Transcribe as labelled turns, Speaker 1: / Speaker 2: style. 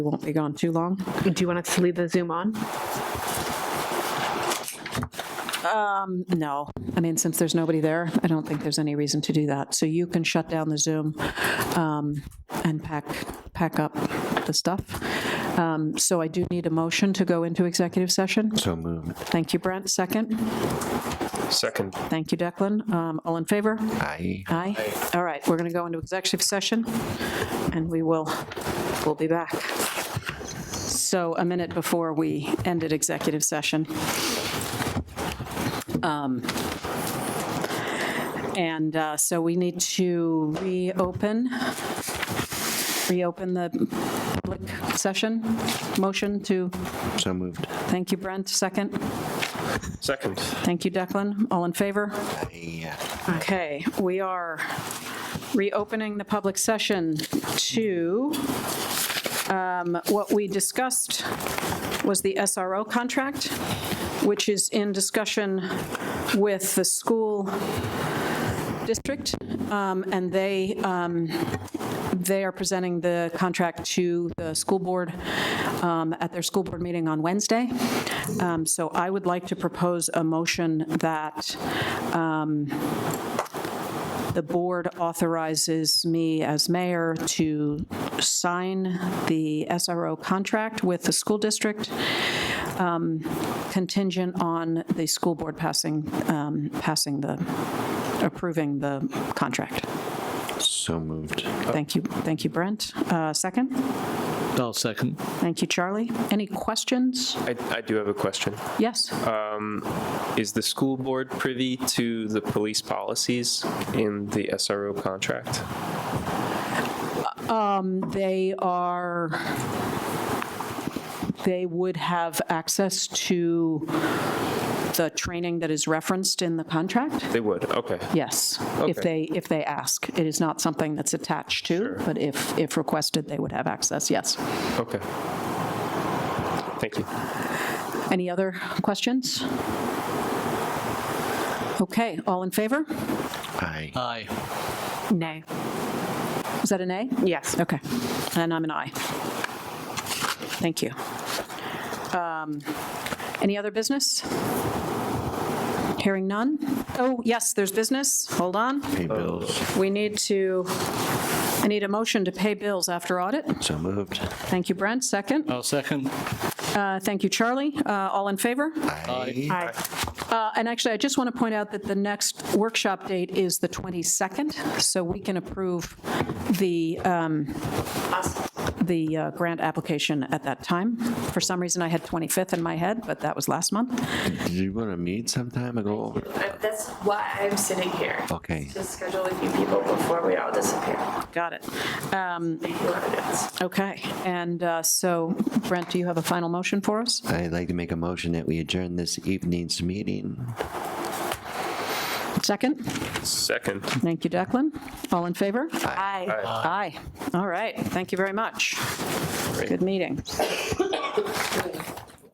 Speaker 1: won't be gone too long.
Speaker 2: Do you want us to leave the Zoom on?
Speaker 1: No, I mean, since there's nobody there, I don't think there's any reason to do that. So you can shut down the Zoom um, and pack, pack up the stuff. Um, So I do need a motion to go into executive session.
Speaker 3: So moved.
Speaker 1: Thank you, Brent. Second.
Speaker 4: Second.
Speaker 1: Thank you, Declan. Um, All in favor?
Speaker 3: Aye.
Speaker 1: Aye. All right, we're going to go into executive session, and we will, we'll be back. So a minute before we ended executive session. Um, And uh, so we need to reopen, reopen the public session. Motion to,
Speaker 3: So moved.
Speaker 1: thank you, Brent, second.
Speaker 4: Second.
Speaker 1: Thank you, Declan. All in favor?
Speaker 3: Aye.
Speaker 1: Okay, we are reopening the public session to, um, what we discussed was the SRO contract, which is in discussion with the school district, um, and they, um, they are presenting the contract to the school board um, at their school board meeting on Wednesday. Um, So I would like to propose a motion that the board authorizes me as mayor to sign the SRO contract with the school district um, contingent on the school board passing, um, passing the, approving the contract.
Speaker 3: So moved.
Speaker 1: Thank you, thank you, Brent. Uh, Second?
Speaker 5: I'll second.
Speaker 1: Thank you, Charlie. Any questions?
Speaker 4: I, I do have a question.
Speaker 1: Yes?
Speaker 4: Is the school board privy to the police policies in the SRO contract?
Speaker 1: They are, they would have access to the training that is referenced in the contract?
Speaker 4: They would, okay.
Speaker 1: Yes, if they,
Speaker 4: Okay.
Speaker 1: if they ask. It is not something that's attached to, but if, if requested, they would have access, yes.
Speaker 4: Okay. Thank you.
Speaker 1: Any other questions? Okay, all in favor?
Speaker 3: Aye.
Speaker 5: Aye.
Speaker 2: Nay.
Speaker 1: Is that an A?
Speaker 2: Yes.
Speaker 1: Okay, and I'm an aye. Thank you. Um, Any other business? Hearing none? Oh, yes, there's business. Hold on.
Speaker 3: Pay
Speaker 4: Uh,
Speaker 3: bills.
Speaker 1: We need to, I need a motion to pay bills after audit.
Speaker 3: So moved.
Speaker 1: Thank you, Brent. Second.
Speaker 5: I'll second.
Speaker 1: Uh, Thank you, Charlie. Uh, All in favor?
Speaker 3: Aye.
Speaker 1: Uh, And actually, I just want to point out that the next workshop date is the 22nd, so we can approve the, um, the uh, grant application at that time. For some reason, I had 25th in my head, but that was last month.
Speaker 3: Did you want to meet sometime ago?
Speaker 6: I- That's why I'm sitting here.
Speaker 3: Okay.
Speaker 6: To schedule a few people before we all disappear.
Speaker 1: Got it. Um,
Speaker 6: Thank you, audience.
Speaker 1: Okay, and uh, so Brent, do you have a final motion for us?
Speaker 3: I'd like to make a motion that we adjourn this evening's meeting.
Speaker 1: Second?
Speaker 4: Second.
Speaker 1: Thank you, Declan. All in favor?
Speaker 4: Aye.
Speaker 1: Aye. All right, thank you very much. Good meeting.